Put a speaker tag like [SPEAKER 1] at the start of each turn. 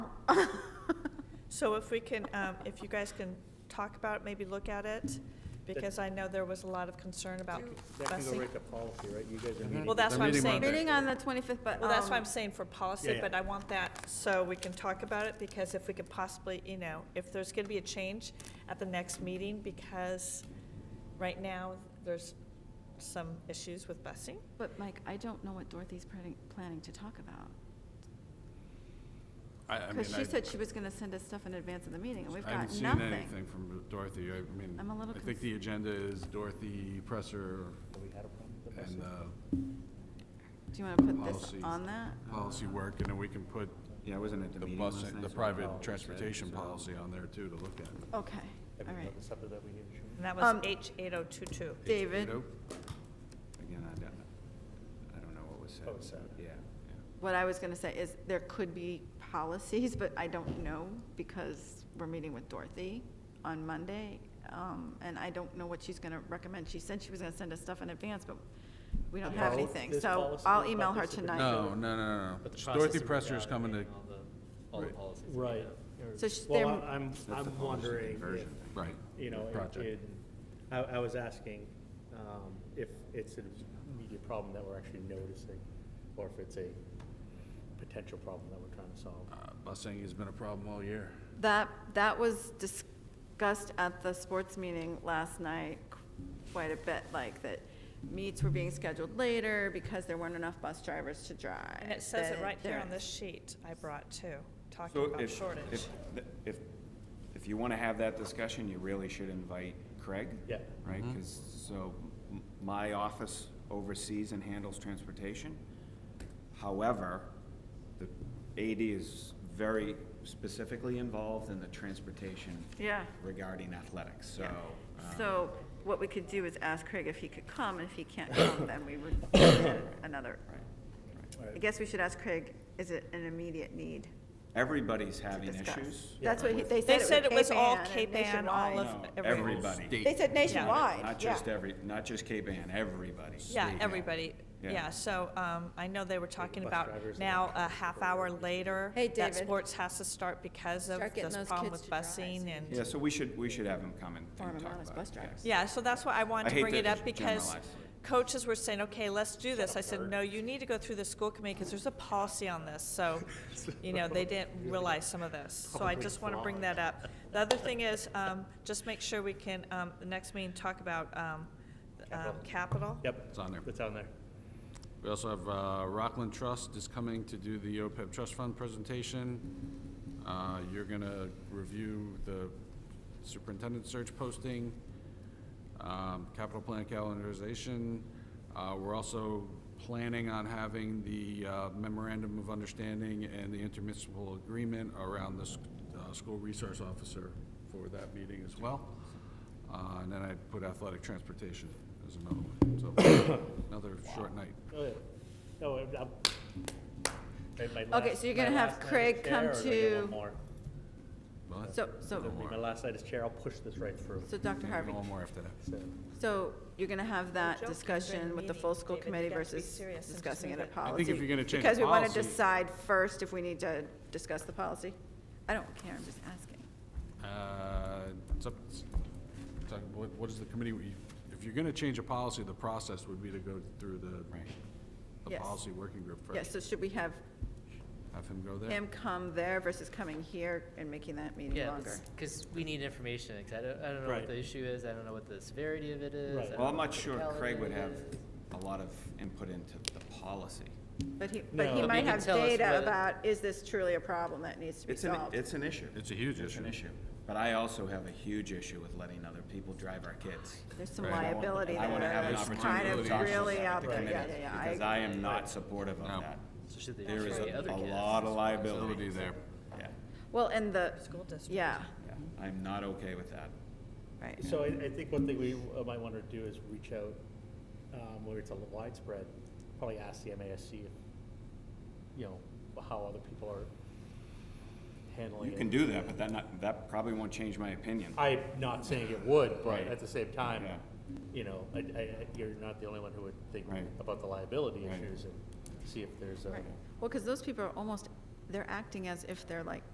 [SPEAKER 1] So if we can, um, if you guys can talk about it, maybe look at it, because I know there was a lot of concern about
[SPEAKER 2] That can go
[SPEAKER 1] busing.
[SPEAKER 2] right to policy, right? You guys are meeting.
[SPEAKER 1] Mm-hmm. Well, that's
[SPEAKER 3] They're
[SPEAKER 1] what I'm
[SPEAKER 3] meeting
[SPEAKER 1] saying.
[SPEAKER 3] Monday.
[SPEAKER 1] Well,
[SPEAKER 3] Meeting
[SPEAKER 4] Meeting on the 25th, but.
[SPEAKER 1] that's why
[SPEAKER 4] um,
[SPEAKER 1] I'm saying for
[SPEAKER 2] Yeah,
[SPEAKER 1] policy,
[SPEAKER 2] yeah.
[SPEAKER 1] but I want that, so we can talk about it, because if we could possibly, you know, if there's gonna be a change at the next meeting, because right now, there's some issues with busing.
[SPEAKER 4] But Mike, I don't know what Dorothy's planning, planning to talk about.
[SPEAKER 3] I, I mean,
[SPEAKER 4] Because she
[SPEAKER 3] I-
[SPEAKER 4] said she was going to send us stuff in advance of the meeting, and we've
[SPEAKER 3] I haven't
[SPEAKER 4] got
[SPEAKER 3] seen
[SPEAKER 4] nothing.
[SPEAKER 3] anything from Dorothy. I mean,
[SPEAKER 4] I'm a little
[SPEAKER 3] I think the agenda is Dorothy Presser
[SPEAKER 2] We had a problem with the
[SPEAKER 3] and
[SPEAKER 2] busing?
[SPEAKER 3] uh,
[SPEAKER 4] Do you want to put this
[SPEAKER 3] policies.
[SPEAKER 4] on that?
[SPEAKER 3] policy work, and then we can put
[SPEAKER 5] Yeah, I wasn't at the
[SPEAKER 3] the
[SPEAKER 5] meeting
[SPEAKER 3] bus,
[SPEAKER 5] last night,
[SPEAKER 3] the
[SPEAKER 5] so I
[SPEAKER 3] private
[SPEAKER 5] apologize,
[SPEAKER 3] transportation
[SPEAKER 5] so-
[SPEAKER 3] policy on there too to look at.
[SPEAKER 4] Okay,
[SPEAKER 2] Have
[SPEAKER 4] all
[SPEAKER 2] you
[SPEAKER 4] right.
[SPEAKER 2] got the subject that we need to change?
[SPEAKER 1] And that was
[SPEAKER 4] Um,
[SPEAKER 1] H eight oh two two.
[SPEAKER 4] David,
[SPEAKER 3] Nope.
[SPEAKER 5] Again, I don't, I don't know what was said.
[SPEAKER 2] Oh, it's said.
[SPEAKER 5] Yeah.
[SPEAKER 4] what I was going to say is there could be policies, but I don't know because we're meeting with Dorothy on Monday. um, And I don't know what she's going to recommend. She said she was going to send us stuff in advance, but we don't have
[SPEAKER 2] Pol-
[SPEAKER 4] anything.
[SPEAKER 2] this
[SPEAKER 4] So
[SPEAKER 6] policy
[SPEAKER 4] I'll
[SPEAKER 6] about
[SPEAKER 4] email
[SPEAKER 6] the
[SPEAKER 4] her
[SPEAKER 6] superintendent.
[SPEAKER 4] tonight.
[SPEAKER 3] No, no, no, no,
[SPEAKER 6] But the
[SPEAKER 3] no.
[SPEAKER 6] process
[SPEAKER 3] Dorothy
[SPEAKER 6] of
[SPEAKER 3] Presser is coming to,
[SPEAKER 6] evaluating all the- All the
[SPEAKER 3] Right.
[SPEAKER 6] policies. that we
[SPEAKER 2] Right.
[SPEAKER 6] have.
[SPEAKER 2] or-
[SPEAKER 4] So sh-
[SPEAKER 2] Well,
[SPEAKER 4] they're-
[SPEAKER 2] I- I'm,
[SPEAKER 5] That's the
[SPEAKER 2] I'm
[SPEAKER 5] policy
[SPEAKER 2] wondering if,
[SPEAKER 5] conversion thing.
[SPEAKER 3] right.
[SPEAKER 2] you know, if
[SPEAKER 3] Project.
[SPEAKER 2] it- I, I was asking, um, if it's an immediate problem that we're actually noticing, or if it's a potential problem that we're trying to solve.
[SPEAKER 3] Uh, Busing has been a problem all year.
[SPEAKER 4] That, that was discussed at the sports meeting last night quite a bit, like that meets were being scheduled later because there weren't enough bus drivers to drive.
[SPEAKER 1] And it says it
[SPEAKER 4] that
[SPEAKER 1] right here on
[SPEAKER 4] there-
[SPEAKER 1] this sheet I brought too, talking
[SPEAKER 5] So
[SPEAKER 1] about
[SPEAKER 5] if,
[SPEAKER 1] shortage.
[SPEAKER 5] if, if, if you want to have that discussion, you really should invite Craig.
[SPEAKER 2] Yeah.
[SPEAKER 5] Right,
[SPEAKER 3] Mm-hmm.
[SPEAKER 5] because, so, m- my office oversees and handles transportation. However, the AD is very specifically involved in the transportation
[SPEAKER 4] Yeah.
[SPEAKER 5] regarding athletics, so. um,
[SPEAKER 4] So what we could do is ask Craig if he could come, and if he can't come, then we would do another. I guess we should ask Craig, is it an immediate need
[SPEAKER 5] Everybody's
[SPEAKER 4] to
[SPEAKER 5] having
[SPEAKER 4] discuss?
[SPEAKER 5] issues.
[SPEAKER 4] That's what he- they
[SPEAKER 1] They
[SPEAKER 4] said.
[SPEAKER 1] said it was all
[SPEAKER 4] Cape
[SPEAKER 1] Cape
[SPEAKER 4] Ann
[SPEAKER 1] Ann,
[SPEAKER 4] and
[SPEAKER 1] all of
[SPEAKER 4] nationwide.
[SPEAKER 5] No,
[SPEAKER 1] everyone.
[SPEAKER 5] everybody.
[SPEAKER 4] They said nationwide,
[SPEAKER 5] Not
[SPEAKER 4] yeah.
[SPEAKER 5] just every, not just Cape Ann, everybody.
[SPEAKER 1] Yeah, everybody,
[SPEAKER 5] Yeah.
[SPEAKER 1] yeah, so, um, I know they were talking
[SPEAKER 2] bus
[SPEAKER 1] about
[SPEAKER 2] drivers and
[SPEAKER 1] now a half hour later.
[SPEAKER 7] Hey,
[SPEAKER 1] That
[SPEAKER 7] David.
[SPEAKER 1] sports has to start because of
[SPEAKER 7] Start getting
[SPEAKER 1] this
[SPEAKER 7] those
[SPEAKER 1] problem
[SPEAKER 7] kids
[SPEAKER 1] with
[SPEAKER 7] to drive.
[SPEAKER 1] busing
[SPEAKER 5] Yeah,
[SPEAKER 1] and,
[SPEAKER 5] so we should, we should have him come and and
[SPEAKER 4] Farm
[SPEAKER 5] talk
[SPEAKER 4] Vermont's
[SPEAKER 5] about it.
[SPEAKER 4] bus
[SPEAKER 5] yeah.
[SPEAKER 4] drivers.
[SPEAKER 1] yeah, so that's why I wanted
[SPEAKER 5] I
[SPEAKER 1] to
[SPEAKER 5] hate
[SPEAKER 1] bring
[SPEAKER 5] to
[SPEAKER 1] it up
[SPEAKER 5] just
[SPEAKER 1] because
[SPEAKER 5] generalize.
[SPEAKER 1] coaches were saying, okay, let's do this. I said, no, you need to go through the school committee because there's a policy on this, so, you know, they didn't realize some of this. So I just want to bring that up. The other thing is, um, just make sure we can, um, the next meeting, talk about, um, um,
[SPEAKER 2] Capital.
[SPEAKER 1] capital.
[SPEAKER 2] Yep.
[SPEAKER 3] It's on there.
[SPEAKER 2] It's on there.
[SPEAKER 3] We also have uh, Rockland Trust is coming to do the OPEB Trust Fund presentation. Uh, You're going to review the superintendent search posting, um, capital plan calendarization. Uh, We're also planning on having the uh, memorandum of understanding and the intermunicipal agreement around the s- uh, school resource officer for that meeting as well. Uh, And then I put athletic transportation as another one, so another short night.
[SPEAKER 2] Oh, yeah. Oh, I'm- I'm- my- my
[SPEAKER 4] Okay,
[SPEAKER 2] last-
[SPEAKER 4] so you're
[SPEAKER 2] my
[SPEAKER 4] gonna have
[SPEAKER 2] last night as
[SPEAKER 4] Craig
[SPEAKER 2] chair,
[SPEAKER 4] come
[SPEAKER 2] or do I get
[SPEAKER 4] to-
[SPEAKER 2] one more?
[SPEAKER 3] What?
[SPEAKER 4] So, so,
[SPEAKER 2] It'll be My last night as chair, I'll push this right through.
[SPEAKER 4] so Dr. Harvey,
[SPEAKER 3] One more after that.
[SPEAKER 2] So-
[SPEAKER 4] so you're going to have that
[SPEAKER 1] Joke is during
[SPEAKER 4] discussion
[SPEAKER 1] the
[SPEAKER 4] with the
[SPEAKER 1] meeting,
[SPEAKER 4] full school
[SPEAKER 1] David,
[SPEAKER 4] committee
[SPEAKER 1] you have to be
[SPEAKER 4] versus
[SPEAKER 1] serious and just
[SPEAKER 4] discussing it
[SPEAKER 1] move
[SPEAKER 4] at
[SPEAKER 1] it.
[SPEAKER 4] policy?
[SPEAKER 3] I think if you're gonna change
[SPEAKER 4] Because we want to
[SPEAKER 3] policy-
[SPEAKER 4] decide first if we need to discuss the policy. I don't care, I'm just asking.
[SPEAKER 3] Uh, it's up- it's- it's like, what- What is the committee, we- if you're going to change a policy, the process would be to go through the, the
[SPEAKER 4] Yes.
[SPEAKER 3] policy working group
[SPEAKER 4] Yeah,
[SPEAKER 3] first.
[SPEAKER 4] so should we have
[SPEAKER 3] Have him go there.
[SPEAKER 4] him come there versus coming here and making that meeting
[SPEAKER 6] Yeah,
[SPEAKER 4] longer?
[SPEAKER 6] because we need information, because I don't, I don't know
[SPEAKER 2] Right.
[SPEAKER 6] what the issue is, I don't know what the severity of it is.
[SPEAKER 2] Right.
[SPEAKER 6] I don't
[SPEAKER 5] Well, I'm
[SPEAKER 6] know
[SPEAKER 5] not
[SPEAKER 6] what the
[SPEAKER 5] sure Craig would have
[SPEAKER 6] calendar is.
[SPEAKER 5] a lot of input into the policy.
[SPEAKER 4] But he, but
[SPEAKER 2] No.
[SPEAKER 4] he
[SPEAKER 2] But
[SPEAKER 4] might
[SPEAKER 6] you can
[SPEAKER 4] have
[SPEAKER 6] tell us
[SPEAKER 4] data
[SPEAKER 6] whether-
[SPEAKER 4] about, is this truly a problem that needs to be
[SPEAKER 5] It's an,
[SPEAKER 4] solved?
[SPEAKER 5] it's an issue.
[SPEAKER 3] It's a huge
[SPEAKER 5] It's an
[SPEAKER 3] issue.
[SPEAKER 5] issue. But I also have a huge issue with letting other people drive our kids.
[SPEAKER 4] There's some
[SPEAKER 3] Right.
[SPEAKER 4] liability
[SPEAKER 5] I want to have
[SPEAKER 4] there
[SPEAKER 5] an
[SPEAKER 4] that's
[SPEAKER 5] opportunity
[SPEAKER 4] kind
[SPEAKER 5] to
[SPEAKER 4] of
[SPEAKER 5] talk
[SPEAKER 4] really
[SPEAKER 5] about
[SPEAKER 4] out
[SPEAKER 5] the
[SPEAKER 4] there. Yeah,
[SPEAKER 5] committee,
[SPEAKER 4] yeah,
[SPEAKER 5] Because
[SPEAKER 4] yeah.
[SPEAKER 5] I am not supportive of
[SPEAKER 3] No.
[SPEAKER 5] that.
[SPEAKER 6] So should they
[SPEAKER 5] There
[SPEAKER 6] just
[SPEAKER 5] is
[SPEAKER 6] try the
[SPEAKER 5] a
[SPEAKER 6] other
[SPEAKER 5] a
[SPEAKER 6] kids?
[SPEAKER 5] lot of
[SPEAKER 3] Ability
[SPEAKER 5] liability.
[SPEAKER 3] there.
[SPEAKER 5] Yeah,
[SPEAKER 4] I- Well, and the,
[SPEAKER 1] School district.
[SPEAKER 4] yeah,
[SPEAKER 5] yeah. I'm not okay with that.
[SPEAKER 4] right.
[SPEAKER 2] So I, I think one thing we uh, might want to do is reach out, um, where it's a widespread, probably ask the MASC, if, you know, how other people are handling
[SPEAKER 5] You
[SPEAKER 2] it.
[SPEAKER 5] can do that, but that not, that probably won't change my opinion.
[SPEAKER 2] I'm not saying it would, but
[SPEAKER 5] Right.
[SPEAKER 2] at the same time,
[SPEAKER 5] Yeah.
[SPEAKER 2] you know, I, I, I- you're not the only one who would think
[SPEAKER 5] Right.
[SPEAKER 2] about the liability
[SPEAKER 5] Right.
[SPEAKER 2] issues and see if there's a.
[SPEAKER 4] Right. Well, because those people are almost, they're acting as if they're like